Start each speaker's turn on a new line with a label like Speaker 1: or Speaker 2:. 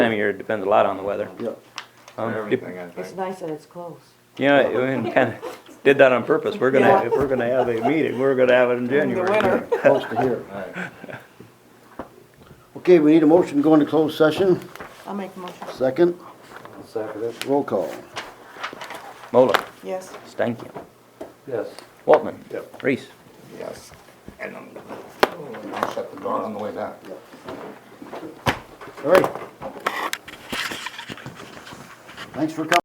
Speaker 1: of year, it depends a lot on the weather.
Speaker 2: Yep.
Speaker 1: Um,
Speaker 3: Everything, I
Speaker 4: It's
Speaker 3: think.
Speaker 4: nice that it's close.
Speaker 1: You know, we kind of did that on purpose. We're gonna, if we're gonna have a meeting, we're gonna have it in January.
Speaker 4: winter.
Speaker 2: Close to here.
Speaker 3: Right.
Speaker 2: Okay, we need a motion to go into closed session.
Speaker 4: I'll make a motion,
Speaker 2: Second,
Speaker 5: Second it.
Speaker 2: roll call.
Speaker 1: Mola,
Speaker 4: yes.
Speaker 1: Stankin,
Speaker 5: Yes.
Speaker 1: Waltman.
Speaker 2: Yep.
Speaker 1: Reese.
Speaker 3: Yes. And I'm, I'll shut the door on the way back.
Speaker 2: All right. Thanks for coming.